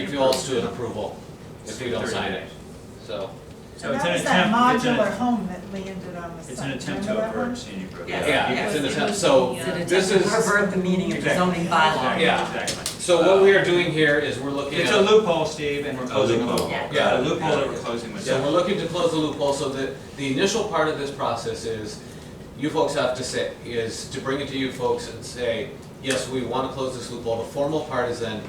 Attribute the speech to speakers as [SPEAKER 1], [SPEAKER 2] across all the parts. [SPEAKER 1] If you all do an approval, if you don't sign it, so.
[SPEAKER 2] So
[SPEAKER 3] So
[SPEAKER 2] it's
[SPEAKER 3] that
[SPEAKER 2] an
[SPEAKER 3] was
[SPEAKER 2] attempt,
[SPEAKER 3] that
[SPEAKER 2] it's
[SPEAKER 3] modular
[SPEAKER 2] an,
[SPEAKER 3] home that landed on the site.
[SPEAKER 2] it's an attempt
[SPEAKER 3] Remember
[SPEAKER 2] to
[SPEAKER 3] that one?
[SPEAKER 2] avert scenic road.
[SPEAKER 4] Yes.
[SPEAKER 1] Yeah, it's in the town, so
[SPEAKER 4] It's an attempt
[SPEAKER 1] this
[SPEAKER 4] to
[SPEAKER 1] is-
[SPEAKER 4] Revert the meaning of the
[SPEAKER 2] Exactly.
[SPEAKER 4] zoning bylaw.
[SPEAKER 2] Exactly,
[SPEAKER 1] Yeah.
[SPEAKER 2] Exactly.
[SPEAKER 1] So what we are doing here is we're looking
[SPEAKER 2] It's a
[SPEAKER 1] at,
[SPEAKER 2] loophole, Steve, and we're closing a loophole.
[SPEAKER 4] Yeah.
[SPEAKER 2] A
[SPEAKER 1] Yeah.
[SPEAKER 2] loophole that we're closing with.
[SPEAKER 1] so we're looking to close the loophole, so that the initial part of this process is, you folks have to say, is to bring it to you folks and say, yes, we want to close this loophole. The formal part is then,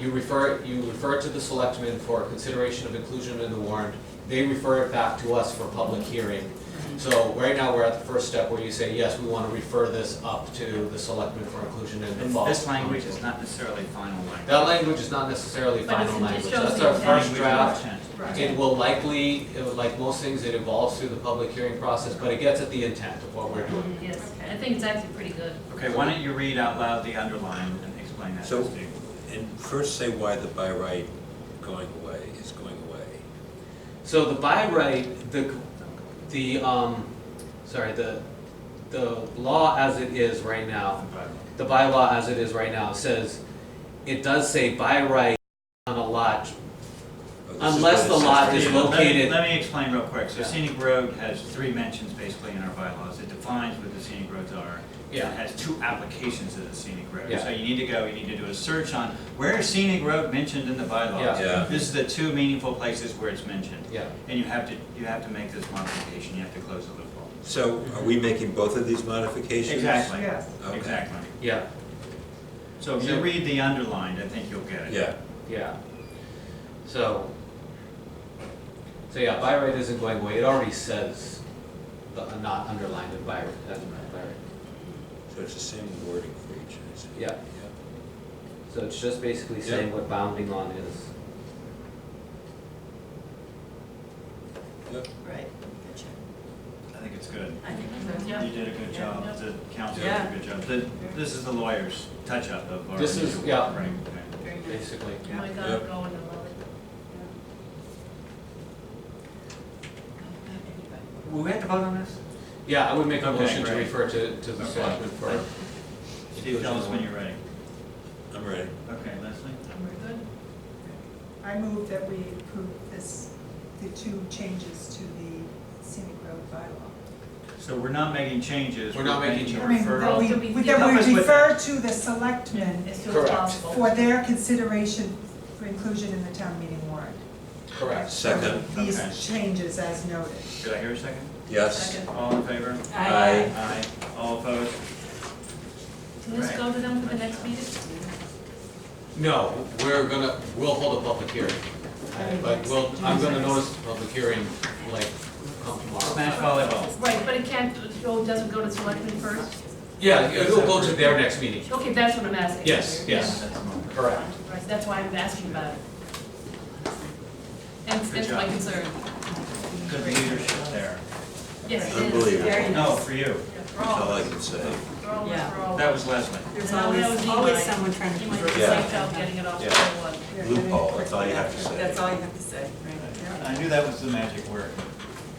[SPEAKER 1] you refer, you refer it to the selectmen for consideration of inclusion in the warrant. They refer it back to us for public hearing. So right now, we're at the first step where you say, yes, we want to refer this up to the selectmen for inclusion in the
[SPEAKER 2] And
[SPEAKER 1] fall.
[SPEAKER 2] This language is not necessarily final language.
[SPEAKER 1] That language is not necessarily
[SPEAKER 5] But it's-
[SPEAKER 1] final
[SPEAKER 5] it
[SPEAKER 1] language,
[SPEAKER 5] shows
[SPEAKER 1] that's
[SPEAKER 5] the
[SPEAKER 1] our
[SPEAKER 5] intent.
[SPEAKER 1] first draft.
[SPEAKER 5] Right.
[SPEAKER 1] It will likely, it would- like most things, it evolves through the public hearing process, but it gets at the intent of what we're doing.
[SPEAKER 5] Yes, I think it's actually pretty good.
[SPEAKER 2] Okay, why don't you read out loud the underline and explain that to
[SPEAKER 6] So-
[SPEAKER 2] Steve?
[SPEAKER 6] And first say why the by right going away is going away. Oh,
[SPEAKER 1] So the by right, the, the, um, sorry, the, the law as it is right now, the bylaw as it is right now says, it does say by right on a lot,
[SPEAKER 6] Oh, this is
[SPEAKER 1] Unless
[SPEAKER 6] what it
[SPEAKER 1] the
[SPEAKER 6] says
[SPEAKER 1] lot
[SPEAKER 6] right
[SPEAKER 1] is
[SPEAKER 6] here.
[SPEAKER 1] lo-
[SPEAKER 2] Let me-
[SPEAKER 1] located-
[SPEAKER 2] Let me explain real quick. So
[SPEAKER 1] Yeah.
[SPEAKER 2] scenic road has three mentions basically in our bylaws. It defines what the scenic roads are. It
[SPEAKER 1] Yeah.
[SPEAKER 2] has two applications of the scenic road.
[SPEAKER 1] Yeah.
[SPEAKER 2] So you need to go, you need to do a search on where is scenic road mentioned in the bylaws?
[SPEAKER 1] Yeah.
[SPEAKER 6] Yeah.
[SPEAKER 2] This is the two meaningful places where it's mentioned.
[SPEAKER 1] yeah.
[SPEAKER 2] And you have to, you have to make this modification, you have to close the loophole.
[SPEAKER 6] So are we making both of these modifications?
[SPEAKER 2] Exactly,
[SPEAKER 3] Yeah.
[SPEAKER 6] Okay.
[SPEAKER 2] exactly.
[SPEAKER 1] Yeah,
[SPEAKER 2] So if you read the underlined, I think you'll get it.
[SPEAKER 6] Yeah,
[SPEAKER 1] yeah. So, so yeah, by right isn't going away, it already says, the- not underlined in by right, that's not by right.
[SPEAKER 6] so it's the same wording for each, I see.
[SPEAKER 1] Yeah. So it's just basically saying what bounding on is.
[SPEAKER 6] Yep.
[SPEAKER 4] Right. Gotcha.
[SPEAKER 2] I think it's good.
[SPEAKER 4] I think so.
[SPEAKER 5] Yeah.
[SPEAKER 2] You did a good job, the council did
[SPEAKER 4] Yeah.
[SPEAKER 2] a good job. The- This is the lawyer's touch-up of our.
[SPEAKER 1] This is-
[SPEAKER 2] usual,
[SPEAKER 1] yeah.
[SPEAKER 2] Right.
[SPEAKER 5] Very nice.
[SPEAKER 1] Basically.
[SPEAKER 5] Oh my God,
[SPEAKER 6] Yeah.
[SPEAKER 5] I'm going to love it.
[SPEAKER 2] Will we have to vote on this?
[SPEAKER 1] Yeah, I would make a
[SPEAKER 2] Okay,
[SPEAKER 1] motion to
[SPEAKER 2] great.
[SPEAKER 1] refer to, to the
[SPEAKER 2] Okay.
[SPEAKER 1] selectmen for.
[SPEAKER 2] Steve, tell us when you're ready.
[SPEAKER 6] I'm ready.
[SPEAKER 2] Okay, Leslie?
[SPEAKER 5] We're good?
[SPEAKER 3] I move that we approve this, the two changes to the scenic road bylaw.
[SPEAKER 2] So we're not making changes.
[SPEAKER 1] We're not making
[SPEAKER 3] I
[SPEAKER 1] changes.
[SPEAKER 3] mean, that
[SPEAKER 5] Referral.
[SPEAKER 3] we, that we refer to the selectmen
[SPEAKER 5] As soon as
[SPEAKER 1] Correct.
[SPEAKER 5] possible.
[SPEAKER 3] for their consideration for inclusion in the town meeting warrant.
[SPEAKER 1] Correct.
[SPEAKER 6] Second,
[SPEAKER 3] These
[SPEAKER 2] Okay.
[SPEAKER 3] changes as noted.
[SPEAKER 2] Did I hear a second?
[SPEAKER 6] yes.
[SPEAKER 5] Second.
[SPEAKER 2] All in favor?
[SPEAKER 6] Aye.
[SPEAKER 2] Aye. All opposed?
[SPEAKER 5] So let's go to them for the next meeting?
[SPEAKER 1] No, we're gonna, we'll hold a public hearing, but we'll, I'm gonna notice the public hearing, like, come
[SPEAKER 2] Smash
[SPEAKER 1] tomorrow.
[SPEAKER 2] volleyball.
[SPEAKER 5] Right, but it can't, it doesn't go to selectmen first?
[SPEAKER 1] Yeah, it'll go to their next meeting.
[SPEAKER 5] Okay, that's what I'm asking.
[SPEAKER 1] Yes, yes.
[SPEAKER 5] Yeah.
[SPEAKER 1] Correct.
[SPEAKER 5] Right, that's why I'm asking about it. And
[SPEAKER 2] Good
[SPEAKER 5] that's my
[SPEAKER 2] job.
[SPEAKER 5] concern.
[SPEAKER 2] Good leadership there.
[SPEAKER 5] Yes, it is.
[SPEAKER 6] Unbelievable.
[SPEAKER 4] Very
[SPEAKER 2] No,
[SPEAKER 4] nice.
[SPEAKER 2] for you.
[SPEAKER 5] That's
[SPEAKER 6] That's all I can say.
[SPEAKER 4] Yeah.
[SPEAKER 2] That was Leslie.
[SPEAKER 4] There's
[SPEAKER 5] That
[SPEAKER 4] always,
[SPEAKER 5] was
[SPEAKER 4] always
[SPEAKER 5] Eli.
[SPEAKER 4] someone trying to.
[SPEAKER 5] You might be
[SPEAKER 6] Yeah.
[SPEAKER 5] psyched out uh, getting it off the
[SPEAKER 6] Yeah.
[SPEAKER 5] one.
[SPEAKER 3] Yeah.
[SPEAKER 6] Loophole, that's all you have to say.
[SPEAKER 4] That's all you have to say, right?
[SPEAKER 2] I knew that was the magic word.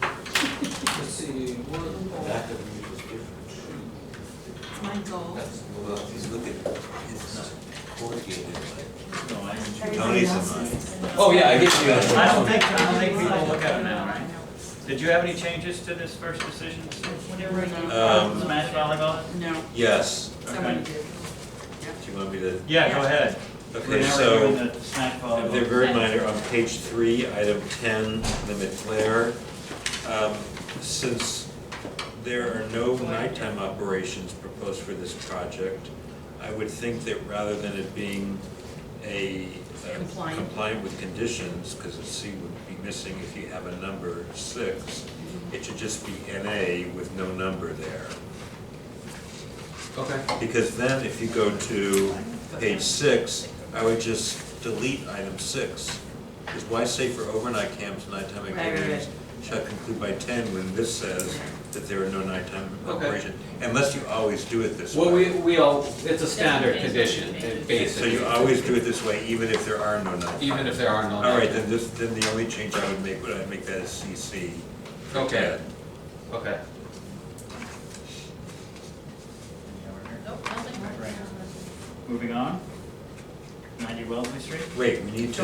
[SPEAKER 1] Let's see,
[SPEAKER 6] Back of me was different.
[SPEAKER 4] It's my goal.
[SPEAKER 6] Well, he's looking, it's corrugated like.
[SPEAKER 2] No, I.
[SPEAKER 6] Tony's in
[SPEAKER 4] Everybody
[SPEAKER 6] mine.
[SPEAKER 4] else is-
[SPEAKER 1] Oh, yeah, I get you.
[SPEAKER 2] I don't think, I don't think people look at it now, right? Did you have any changes to this first decision?
[SPEAKER 5] Whenever you.
[SPEAKER 6] Um,
[SPEAKER 2] Smash volleyball?
[SPEAKER 4] No,
[SPEAKER 6] Yes,
[SPEAKER 4] someone did.
[SPEAKER 6] do you want me to?
[SPEAKER 2] Yeah, go ahead.
[SPEAKER 6] Okay,
[SPEAKER 2] Now we're
[SPEAKER 6] so.
[SPEAKER 2] doing the Smash
[SPEAKER 6] They're
[SPEAKER 2] volleyball.
[SPEAKER 6] very minor, on page three, item ten, limit flare. Um, Since there are no nighttime operations proposed for this project, I would think that rather than it being a uh,
[SPEAKER 4] Compliant.
[SPEAKER 6] compliant with conditions, because a C would be missing if you have a number six, it should just be NA with no number there.
[SPEAKER 1] Okay,
[SPEAKER 6] Because then if you go to page six, I would just delete item six. Because why say for overnight camps, nighttime
[SPEAKER 4] Right, right,
[SPEAKER 6] activities shall conclude by ten when this says that there are no nighttime
[SPEAKER 1] Okay.
[SPEAKER 6] operation? Unless you always do it this way.
[SPEAKER 1] well, we, we all, it's a standard condition, it-
[SPEAKER 6] So you
[SPEAKER 1] basically,
[SPEAKER 6] always do it this way even if there are no nighttime.
[SPEAKER 1] even if there are no.
[SPEAKER 6] All right, then this, then the only change I would make, would I make that a CC?
[SPEAKER 1] Okay, okay.
[SPEAKER 5] Nope, nothing.
[SPEAKER 2] Right. Moving on. Ninety Wellesley Street?
[SPEAKER 6] Wait, we need to